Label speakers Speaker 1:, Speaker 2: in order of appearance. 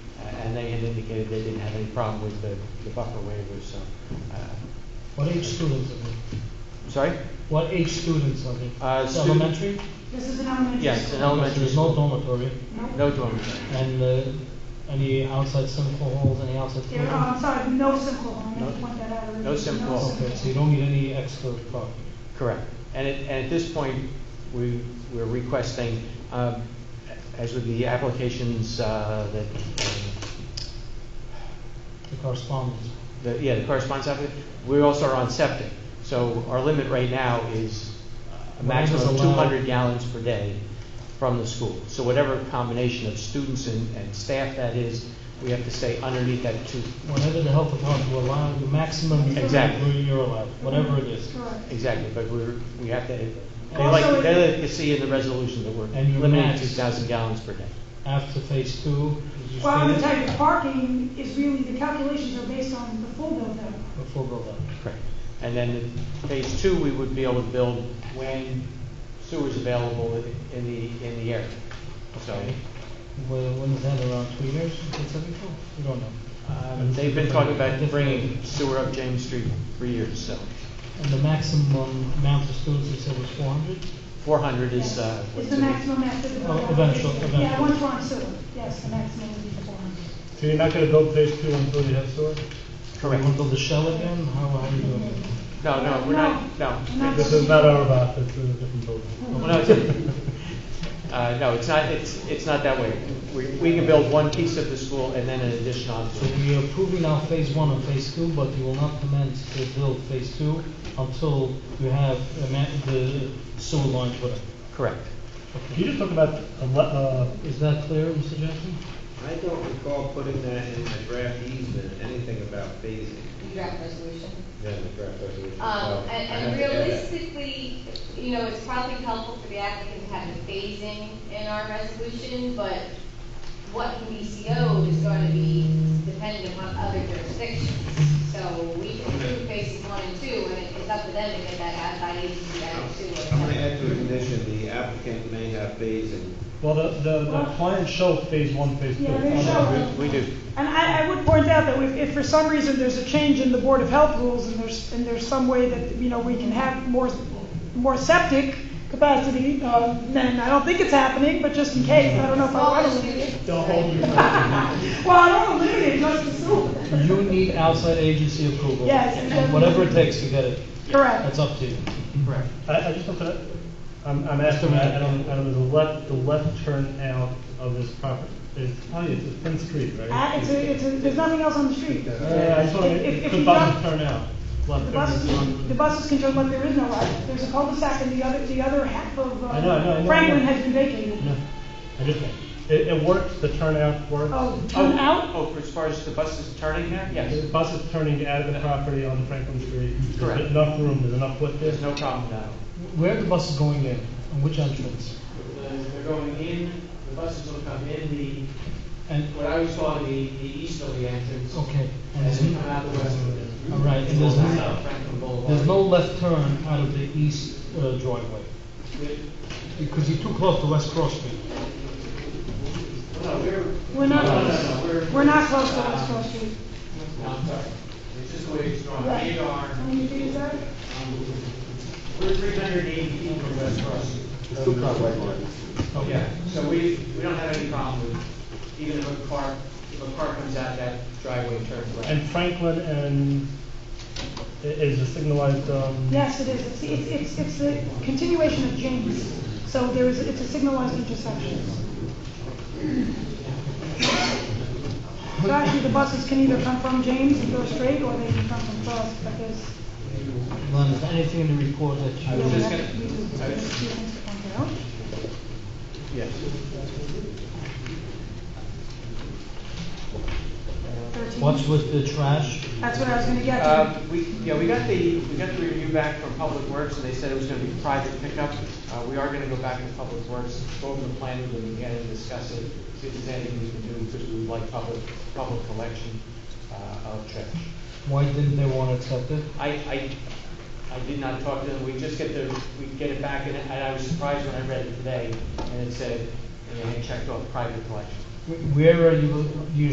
Speaker 1: indicated Uh, they didn't have any problem with the, the buffer waivers, so, uh,
Speaker 2: What age students are they?
Speaker 1: sorry?
Speaker 2: What age students are they?
Speaker 1: Uh,
Speaker 2: It's
Speaker 1: student-
Speaker 2: Elementary?
Speaker 3: This is an elementary.
Speaker 1: Yes,
Speaker 3: school.
Speaker 1: an elementary
Speaker 2: There's no
Speaker 1: school.
Speaker 2: dormitory,
Speaker 3: No,
Speaker 1: No dormitory.
Speaker 2: and, uh, any outside simple halls, any outside
Speaker 3: there,
Speaker 2: community?
Speaker 3: oh, I'm sorry, no simple, I meant to
Speaker 1: No-
Speaker 3: point that out.
Speaker 1: no simple.
Speaker 2: Okay, so you don't need any extra property.
Speaker 1: Correct. And at, and at this point, we, we're requesting, um, as with the applications, uh, that, um,
Speaker 2: The correspondence.
Speaker 1: the, yeah, the correspondence application, we also are on septic. So our limit right now is a maximum of
Speaker 2: Whatever's
Speaker 1: two
Speaker 2: allowed.
Speaker 1: hundred gallons per day from the school. So whatever combination of students and, and staff that is, we have to stay underneath that two,
Speaker 2: Whenever the health department will allow, the maximum
Speaker 1: Exactly.
Speaker 2: you're allowed, whatever it is.
Speaker 3: Correct.
Speaker 1: exactly, but we're, we have to, they
Speaker 3: Also,
Speaker 1: like,
Speaker 3: it-
Speaker 1: they like to see in the resolution that we're
Speaker 2: And your
Speaker 1: limiting
Speaker 2: max.
Speaker 1: two thousand gallons per day.
Speaker 2: After phase two, did you
Speaker 3: Well, I'm gonna
Speaker 2: state
Speaker 3: tell you,
Speaker 2: it?
Speaker 3: parking is really, the calculations are based on the full build out.
Speaker 2: Before build-up.
Speaker 1: Correct. And then in phase two, we would be able to build when sewer's available in- in the, in the area. So,
Speaker 2: Well, when is that, around two years, it's every four, we don't know.
Speaker 1: um, they've been talking about bringing sewer up James Street for years, so
Speaker 2: And the maximum amount of students, you said was four hundred?
Speaker 1: four hundred is, uh.
Speaker 3: It's
Speaker 1: what's
Speaker 3: the
Speaker 1: in it.
Speaker 3: maximum after the.
Speaker 2: Oh, eventual-
Speaker 3: Yeah,
Speaker 2: eventual.
Speaker 3: once we're on sewer, yes, the maximum would be four hundred.
Speaker 4: So you're not gonna build phase two until you have sewer?
Speaker 1: Correct.
Speaker 2: You want to build a shell again, how, how are you doing it?
Speaker 1: No, no, we're not, no.
Speaker 3: We're not-
Speaker 4: This is not our lot, this is a different building.
Speaker 1: Well, no, it's- Uh, no, it's not, it's, it's not that way. We, we can build one piece of the school and then an addition on
Speaker 2: So
Speaker 1: to it.
Speaker 2: we are approving now phase one and phase two, but you will not commence to build phase two until you have the ma- the sewer lines with it.
Speaker 1: Correct.
Speaker 4: Can you just talk about, a le- uh,
Speaker 2: Is that clear, Mr. Jackson?
Speaker 5: I don't recall putting that in my draft easement, anything about phasing,
Speaker 6: You draft resolution.
Speaker 5: yeah, the draft resolution.
Speaker 6: Um,
Speaker 5: So, Oh, I
Speaker 6: and, and
Speaker 5: have to add that.
Speaker 6: realistically, you know, it's probably helpful for the applicant to have the phasing in our resolution, but what can be CO'd is going to be dependent upon other jurisdictions. So we can approve phases one and two, and it- it's up to them to get that out by agency added to it.
Speaker 5: I'm gonna add to a condition, the applicant may have phasing.
Speaker 4: well, the, the, the client show phase one, phase two.
Speaker 3: Yeah, they show it.
Speaker 1: We do.
Speaker 3: And I, I would point out that if, if for some reason there's a change in the Board of Health rules and there's, and there's some way that, you know, we can have more, more septic capacity, uh, then I don't think it's happening, but just in case, I don't know if I want to limit it.
Speaker 4: Don't hold your
Speaker 3: Well, I don't want to limit it, just the sewer.
Speaker 2: You need outside agency approval.
Speaker 3: Yes,
Speaker 2: And
Speaker 3: exactly.
Speaker 2: whatever it takes to get it,
Speaker 3: Correct.
Speaker 2: that's up to you.
Speaker 1: Correct.
Speaker 4: I, I just want to, I'm, I'm asking, I I don't, I don't know, the left, the left turn out of this property, is, oh, it's a thin street, right?
Speaker 3: Uh, it's a, it's a, there's nothing else on the street.
Speaker 4: Yeah, I just want,
Speaker 3: If- if- if
Speaker 4: the
Speaker 3: you
Speaker 4: buses
Speaker 3: don't-
Speaker 4: turn out,
Speaker 3: The
Speaker 4: left turn is
Speaker 3: buses, the
Speaker 4: on.
Speaker 3: buses can turn, but there is no right. There's a cul-de-sac and the other, the other half of
Speaker 4: I know, I know, I
Speaker 3: uh,
Speaker 4: know.
Speaker 3: Franklin has been vacated.
Speaker 4: No, I just, it, it works, the turnout works.
Speaker 3: Oh, turn out?
Speaker 1: Oh, as far as the buses turning there?
Speaker 4: The
Speaker 1: Yes.
Speaker 4: bus is turning out of the property on Franklin Street.
Speaker 1: Correct.
Speaker 4: There's enough room, there's enough width there.
Speaker 1: There's no problem now.
Speaker 2: Where are the buses going in, and which entrance?
Speaker 1: They're going in, the buses will come in the,
Speaker 2: And,
Speaker 1: what I was calling the, the easterly entrance.
Speaker 2: okay. And
Speaker 1: And
Speaker 2: there's
Speaker 1: then come
Speaker 2: n-
Speaker 1: out the westerly.
Speaker 2: All right, and there's
Speaker 1: It's
Speaker 2: no,
Speaker 1: out Franklin Boulevard.
Speaker 2: there's no left turn out of the east uh, driveway,
Speaker 1: Well,
Speaker 2: because you're too close to West Cross Street.
Speaker 1: No, we're,
Speaker 3: We're not,
Speaker 1: No, no, no, we're-
Speaker 3: we're not close to West Cross Street.
Speaker 1: no, I'm sorry. It's just the way it's drawn.
Speaker 3: Right.
Speaker 1: Radar,
Speaker 3: How many feet is that?
Speaker 1: we're three hundred and eighty feet from West Cross Street.
Speaker 2: Okay.
Speaker 1: Yeah, so we, we don't have any problem with, even if a car, if a car comes out that driveway and turns
Speaker 4: And
Speaker 1: right.
Speaker 4: Franklin and, i- is a signalized, um.
Speaker 3: Yes, it is. It's, it's, it's, it's the continuation of James. So there is, it's a signalized intersection. So actually, the buses can either come from James and go straight, or they can come from Cross, but there's.
Speaker 2: Len, is there anything in the report that you?
Speaker 1: I was just gonna-
Speaker 3: You have
Speaker 1: I
Speaker 3: to-
Speaker 1: was-
Speaker 3: you have to point it out.
Speaker 1: Yes.
Speaker 3: 13.
Speaker 2: What's with the trash?
Speaker 3: That's what I was gonna get
Speaker 1: Uh,
Speaker 3: to.
Speaker 1: we, yeah, we got the, we got the review back from Public Works, and they said it was gonna be private pickup. Uh, we are gonna go back to Public Works, go over the plan with them again and discuss it, see if there's anything we can do, because we would like public, public collection, uh, of trash.
Speaker 2: Why didn't they want to accept it?
Speaker 1: I, I, I did not talk to them, we just get the, we get it back, and I- and I was surprised when I read it today, and it said, and it checked off private collection.
Speaker 2: Wh- Where are you, you